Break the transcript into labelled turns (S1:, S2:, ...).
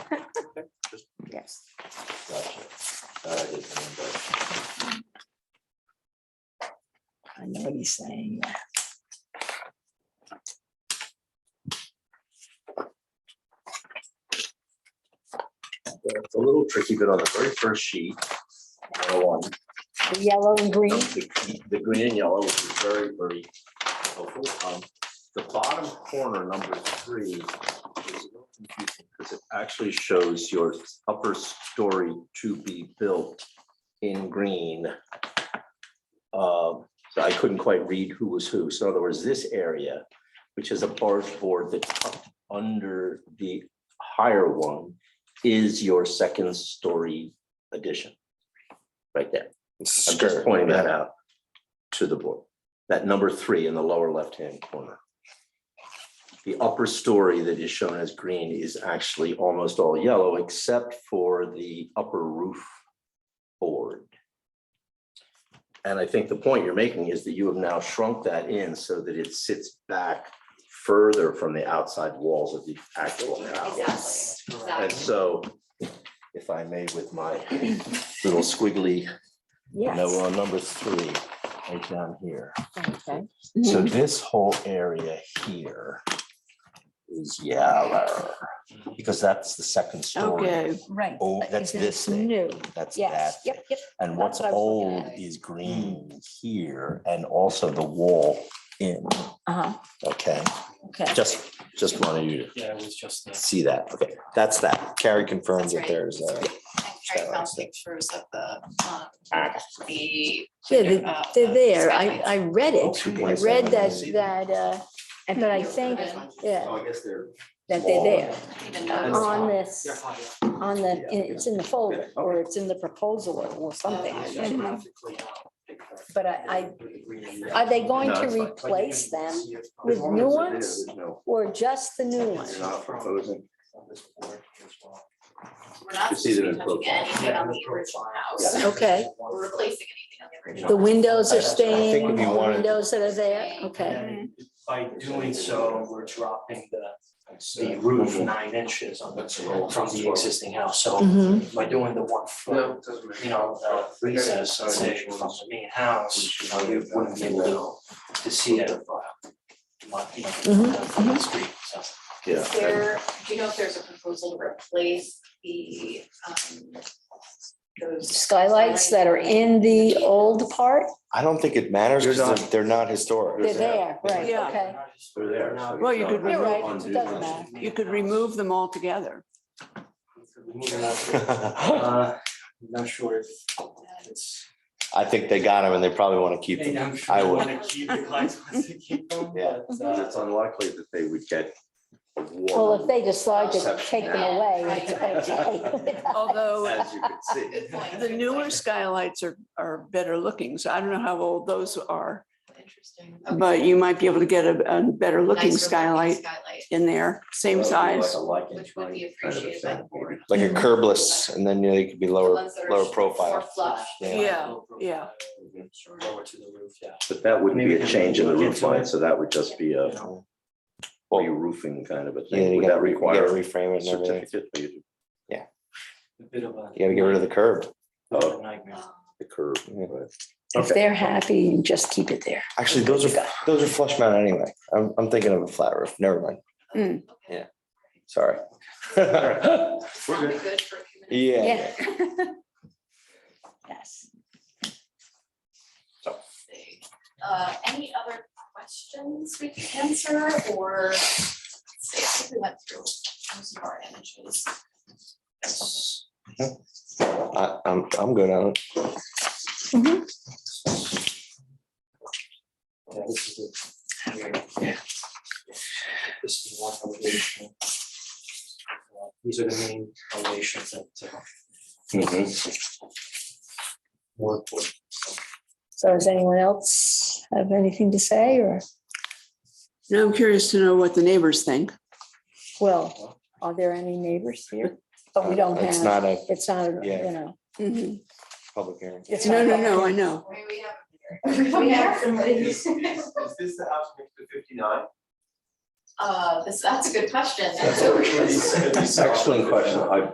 S1: uh, his handbook.
S2: I know what he's saying.
S1: It's a little tricky, but on the very first sheet, the one,
S2: The Yellow and green,
S1: the the green and yellow, which is very, very helpful. Um, The bottom corner, number three, is a little confusing because it actually shows your upper story to be built in green. Um, So I couldn't quite read who was who. So in other words, this area, which is a barge board that's tucked under the higher one, is your second story addition. Right there.
S3: It's a
S1: I'm just
S3: skirt.
S1: pointing that out to the board, that number three in the lower left-hand corner. The upper story that is shown as green is actually almost all yellow except for the upper roof board. And I think the point you're making is that you have now shrunk that in so that it sits back further from the outside walls of the actual house.
S4: Exactly,
S1: And
S4: exactly.
S1: so, if I may, with my little squiggly no, we're
S2: yes.
S1: on number three, right down here.
S2: Okay. Mm-hmm.
S1: So this whole area here is yellow, because that's the second story.
S5: Okay,
S2: Right.
S1: Oh, that's
S2: Because
S1: this
S2: it's
S1: thing.
S2: New,
S1: That's that.
S2: yes, yep, yep,
S1: And what's
S2: that's what I was looking
S1: old
S2: at. Mm.
S1: is green here and also the wall in,
S2: uh-huh,
S1: okay?
S2: okay.
S1: Just, just wanted you
S3: Yeah, it was just
S1: to
S3: that.
S1: see that, okay? That's that.
S3: Carrie confirms
S4: That's
S3: that
S4: right.
S3: there's uh, a.
S4: And Carrie found pictures of the, um, the.
S2: Yeah, they-
S4: uh,
S2: they're there. I,
S4: skylights.
S2: I read
S1: Oh,
S2: it. I read that, that, uh, and- but I
S4: You're
S2: think,
S4: good.
S2: yeah,
S1: Oh, I guess they're.
S2: that they're there
S4: I didn't even
S3: That's
S4: notice.
S2: on
S3: fine.
S2: this, on the, it's in the folder or it's in the proposal or- or something. But I, I, are they going to replace them with new ones or just the new ones?
S4: We're not
S1: You see that in
S4: retouching
S1: profile.
S4: anything on the original house.
S2: Okay,
S4: We're replacing anything on the original.
S2: the windows
S3: I- I
S2: are
S3: think
S2: staying,
S3: if you
S2: the
S3: wanted-
S2: windows that are there, okay.
S5: Mm-hmm.
S3: By doing so, we're dropping the, the roof nine inches on the, from the existing house, so
S2: Mhm.
S3: by doing the one foot, you know, uh, recess, so they- from the main house, you know, you wouldn't be able
S2: Mm-hmm.
S3: to see it. uh, my- you know,
S2: Mhm,
S3: From the street, so.
S1: Yeah.
S4: Is there, do you know if there's a proposal to replace the, um, those?
S2: Skylights that are in the old part,
S3: I don't think it matters
S1: You're
S3: because they're not historic.
S2: they're there, right,
S5: Yeah.
S2: okay.
S1: They're there, so
S5: Well, you could
S2: You're
S5: remove-
S2: right, it doesn't matter.
S5: you could remove them altogether.
S3: Uh, I'm Not sure if it's.
S6: I think they got him and they probably want to keep them.
S3: I'm
S6: I
S3: they
S6: would.
S3: wanna keep the clients wants to keep them,
S6: Yeah.
S3: but,
S1: Because
S3: uh,
S1: it's unlikely that they would get a
S2: Well, if
S1: warrant,
S2: they decide to take them
S4: Yeah,
S2: away,
S4: right,
S2: it's okay.
S5: Although
S1: as you could see.
S4: Good point.
S5: the newer skylights are, are better looking, so I don't know how old those are.
S4: Interesting.
S5: But you might be able to get a, a better looking
S4: Nicer
S5: skylight
S4: Skylight,
S5: in there, same
S1: That would be
S5: size.
S1: Like a
S4: which would be
S1: lichen kind of
S4: appreciated by the
S1: thing.
S4: board.
S6: Like a curbless and then you know, they could be
S4: The
S6: lower,
S4: ones that are
S6: lower
S4: more
S6: profile.
S4: flush.
S5: Yeah, yeah.
S3: Sure, Lower to the roof, yeah.
S1: But that wouldn't be
S3: Maybe
S1: a
S3: we can
S1: change in the
S3: look
S1: roof
S3: into
S1: line,
S3: it.
S1: so that would just be a
S3: You know,
S1: re-roofing kind of a
S6: Yeah,
S1: thing.
S6: you
S1: Would that
S6: gotta, re- you gotta
S1: require a
S6: reframe it and everything.
S1: certificate? for you to-
S3: a bit of a.
S6: You gotta get rid of the curb.
S3: bit of a nightmare.
S4: Um,
S1: The curb.
S6: Yeah.
S1: right.
S2: If
S1: Okay.
S2: they're happy, just keep it there.
S6: Actually, those are, those are flush mounted anyway. I'm, I'm thinking of a flat roof. Never mind.
S5: Mm.
S4: Um, okay.
S6: Yeah. Sorry.
S4: That'll be good E- for a few minutes.
S6: Yeah.
S2: Yeah. Yes.
S4: see. Uh, any other questions we can answer or? let's see, I think we went through most of our images.
S6: I, I'm, I'm good on it. Oh.
S3: Yeah, this is it. Yeah. This is one elevation. Uh, These are the main elevations that. uh, Work with.
S2: So does anyone else have anything to say or,
S5: Now I'm curious to know what the neighbors think.
S2: well, are there any neighbors here? But we don't
S6: Uh, It's
S2: have,
S6: not a
S2: it's not, you
S6: Yeah.
S2: know.
S5: Mhm.
S6: public hearing.
S2: it's
S5: No, no,
S2: not-
S5: no, I know.
S4: Maybe we have. We have somebody.
S7: this the house next to fifty-nine?
S4: Uh, this, that's a good question.
S7: That's what everybody said.
S1: Excellent question. I